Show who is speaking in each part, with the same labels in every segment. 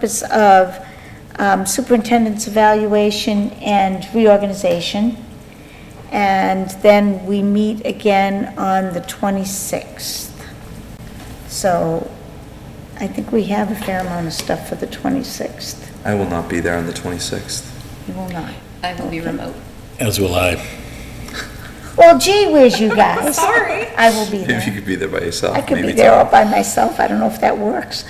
Speaker 1: purpose of um, superintendent's evaluation and reorganization. And then we meet again on the 26th. So I think we have a fair amount of stuff for the 26th.
Speaker 2: I will not be there on the 26th.
Speaker 1: You will not.
Speaker 3: I will be remote.
Speaker 4: As will I.
Speaker 1: Well, gee whiz, you guys.
Speaker 3: Sorry.
Speaker 1: I will be
Speaker 2: If you
Speaker 1: there.
Speaker 2: could be there by yourself.
Speaker 1: I could be
Speaker 2: maybe
Speaker 1: there all
Speaker 2: tomorrow.
Speaker 1: by myself. I don't know if that works.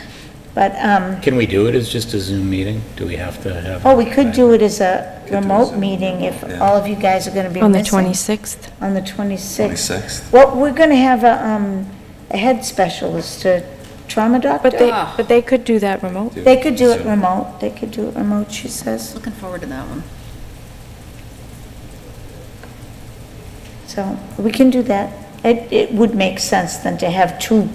Speaker 1: But, um,
Speaker 4: Can we do it as just a Zoom meeting? Do we have to have?
Speaker 1: oh, we could do it as a
Speaker 2: do it as
Speaker 1: remote
Speaker 2: a-
Speaker 1: meeting if
Speaker 2: yeah.
Speaker 1: all of you guys are going to be
Speaker 5: On the
Speaker 1: missing.
Speaker 5: 26th?
Speaker 1: On the 26th.
Speaker 2: 26th.
Speaker 1: Well, we're going to have a, um, a head specialist, a trauma
Speaker 5: But they,
Speaker 1: doctor.
Speaker 3: Ah.
Speaker 5: but they could do that remote.
Speaker 1: They could do it
Speaker 2: Zoom.
Speaker 1: remote, they could do it remote, she says,
Speaker 3: Looking forward to that one.
Speaker 1: so we can do that. It, it would make sense then to have two,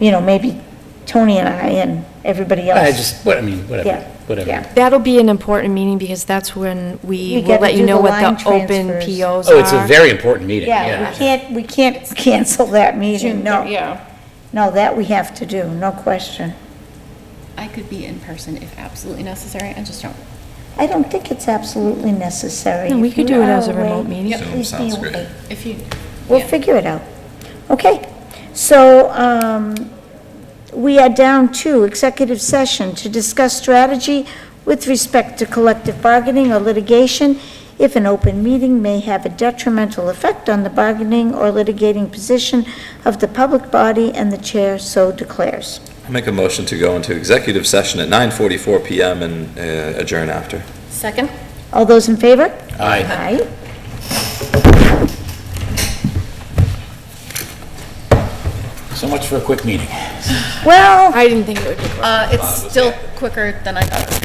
Speaker 1: you know, maybe Tony and I and everybody else.
Speaker 4: I just, what, I mean, whatever,
Speaker 1: Yeah,
Speaker 4: whatever.
Speaker 1: yeah.
Speaker 5: That'll be an important meeting because that's when
Speaker 1: We
Speaker 5: we will
Speaker 1: gotta
Speaker 5: let
Speaker 1: do
Speaker 5: you know
Speaker 1: the
Speaker 5: what
Speaker 1: line
Speaker 5: the open
Speaker 1: transfers.
Speaker 5: POs are.
Speaker 4: Oh, it's a very important meeting,
Speaker 1: Yeah, we
Speaker 4: yeah.
Speaker 1: can't, we can't cancel that meeting, no.
Speaker 3: Yeah.
Speaker 1: No, that we have to do, no question.
Speaker 3: I could be in person if absolutely necessary, I just don't.
Speaker 1: I don't think it's absolutely necessary.
Speaker 5: No, we
Speaker 1: If
Speaker 5: could
Speaker 1: you
Speaker 5: do it
Speaker 1: are
Speaker 5: as a remote
Speaker 1: away,
Speaker 5: meeting.
Speaker 3: Yep.
Speaker 2: Zoom
Speaker 1: Please be
Speaker 2: sounds great.
Speaker 1: away.
Speaker 3: If you.
Speaker 1: We'll
Speaker 3: yeah.
Speaker 1: figure it out. Okay, so um, we are down to executive session to discuss strategy with respect to collective bargaining or litigation if an open meeting may have a detrimental effect on the bargaining or litigating position of the public body and the chair so declares.
Speaker 2: I'll make a motion to go into executive session at 9:44 PM and uh, adjourn after.
Speaker 3: Second?
Speaker 1: All those in favor?
Speaker 4: Aye.
Speaker 1: Aye.
Speaker 4: So much for a quick meeting.
Speaker 1: Well,
Speaker 5: I didn't think it would be.
Speaker 3: Uh, it's still quicker than I thought.